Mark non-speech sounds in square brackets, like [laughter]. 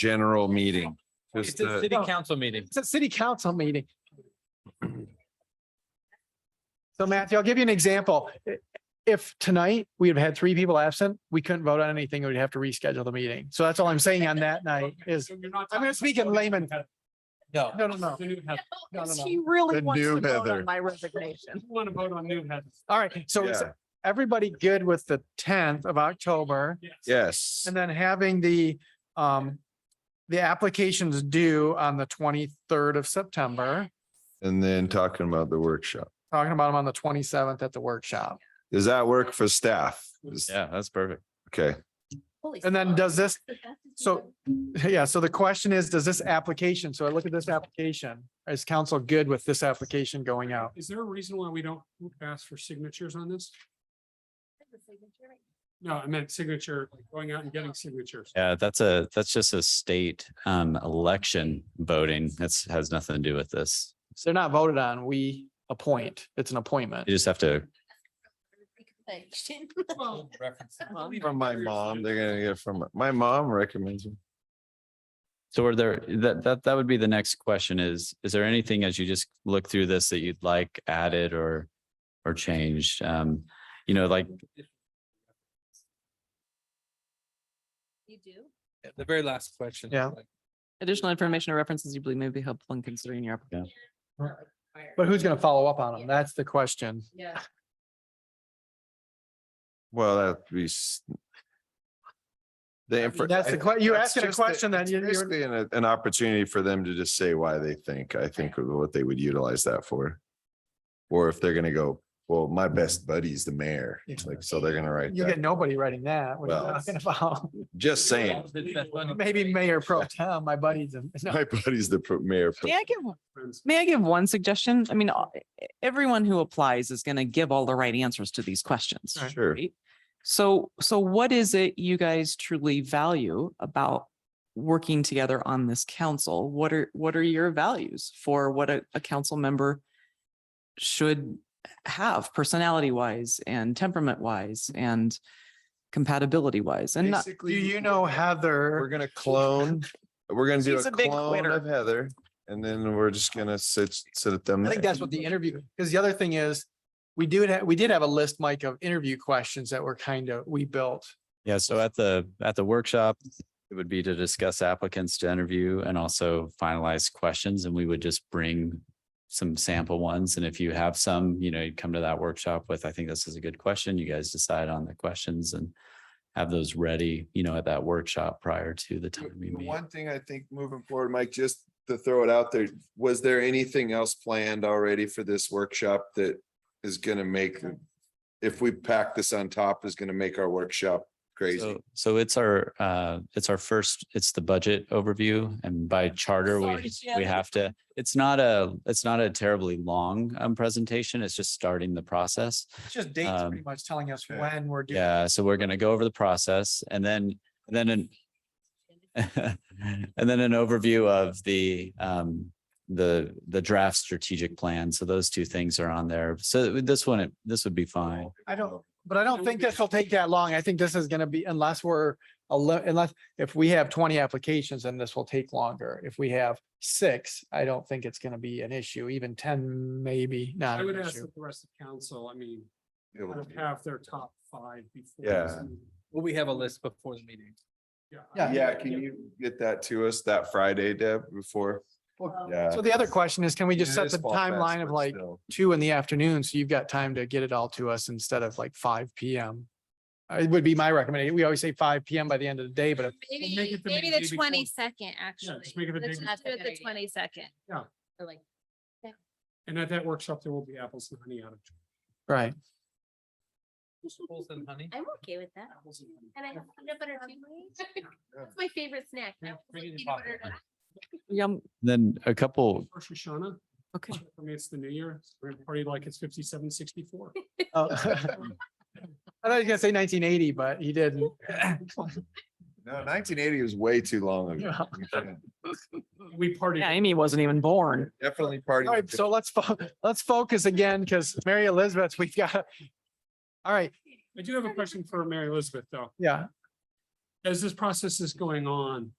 general meeting. Just It's a to- city council meeting. It's a city council meeting. So Matthew, I'll give you an example. I- If tonight we have had three people absent, we couldn't vote on anything. We'd have to reschedule the meeting. So that's all I'm saying on that night is, I'm going to speak in layman. No. No, no, no. No, no, Because no. She really Good wants new to vote Heather. on my resignation. Want to vote on new heads? All right. So is Yeah. everybody good with the tenth of October? Yes, And then having the, um, the applications due on the twenty-third of September, and then talking about the workshop. talking about them on the twenty-seventh at the workshop. Does that work for staff? Is- Yeah, that's perfect. Okay, And then does this, so, yeah, so the question is, does this application, so I look at this application, is council good with this application going out? Is there a reason why we don't ask for signatures on this? No, I meant signature, like going out and getting signatures. Yeah, that's a, that's just a state um election voting. That's has nothing to do with this. So they're not voted on, we appoint, it's an appointment. You just have to, from my mom, they're gonna get from, my mom recommends. it. so are there, that that that would be the next question is, is there anything as you just look through this that you'd like added or or changed? Um, you know, like You do? The very last question. Yeah. Additional information or references you believe may be helpful in considering your application. But who's gonna follow up on them? That's the question. Yeah. Well, that'd be. s- The. mean, infor- that's the que- you're asking a just a- question that it's you- you're- Basically, an, an opportunity for them to just say why they think, I think of what they would utilize that for. Or if they're gonna go, well, my best buddy's the mayor, It's like, so they're gonna write You get that, nobody writing that. What are Well. you talking about? [laughs] [laughs] just saying, Maybe Mayor Pro Tem, my buddies. and- no. my buddy's the pro- mayor. pro- May I give, Friends. may I give one suggestion? I mean, all- everyone who applies is going to give all the right answers to these questions. Sure. right? So, so what is it you guys truly value about working together on this council? What are, what are your values for what a, a council member should have personality wise and temperament wise and compatibility wise and not, Do you know We're Heather? [laughs] gonna clone, we're gonna do She's a a big clone quitter. of Heather. And then we're just gonna sit, sit at them. I think that's what the interview, because the other thing is, we do, ha- we did have a list, Mike, of interview questions that were kind of, we built. Yeah, so at the, at the workshop, it would be to discuss applicants to interview and also finalize questions, and we would just bring some sample ones, and if you have some, you know, you'd come to that workshop with, I think this is a good question, you guys decide on the questions and have those ready, you know, at that workshop prior to the time we The meet. One thing I think moving forward, Mike, just to throw it out there, was there anything else planned already for this workshop that is gonna make? If we pack this on top, is gonna make our workshop crazy. So- So it's our, uh, it's our first, it's the budget overview and by charter, Sorry, we, Shannon. we have to, it's not a, it's not a terribly long, um, presentation. It's just starting the process. It's just dates Um, pretty much telling us yeah. when we're doing. Yeah, so we're gonna go over the process and then, and then an. [laughs] And then an overview of the um, the, the draft strategic plan. So those two things are on there. So this one, this would be fine. I Oh. don't, but I don't think this will take that long. I think this is gonna be, unless we're, a lo- unless, if we have twenty applications, then this will take longer. If we have six, I don't think it's gonna be an issue, even ten, maybe not I would an ask issue. that the rest of council, I mean, It'll- have their top five before. Yeah. this meeting. Will we have a list before the meeting? Yeah. Yeah, can you get that to us that Friday, Deb, before? [laughs] Yeah. So the other question is, can we just It set is the fall fest, timeline of but like still. two in the afternoon, so you've got time to get it all to us instead of like five P M? It would be my recommendation. We always say five P M by the end of the day, but if make Maybe, it the maybe day the before. twenty second, actually. just make it the Let's day just do before. it the twenty second. Yeah. Or like, And at that workshop, there will be apples and honey out of. Right. Apples and honey? I'm okay with that. And I have peanut butter too. Yeah. That's my favorite snack. Yeah, apples bring and it in peanut pocket. butter and yum, Then a couple, First Shoshana, um, okay. I mean, it's the new year, we're gonna party like it's fifty-seven, sixty-four. Oh. [laughs] I thought he was gonna say nineteen eighty, but he didn't. No, nineteen eighty was way too long ago. Yeah. We should We partied. Yeah, Amy wasn't even born. Definitely party. [laughs] All right, so let's, fo- let's focus again, because Mary Elizabeth, we've got. All right, I do have a question for Mary Elizabeth, though. yeah, As this process is going on,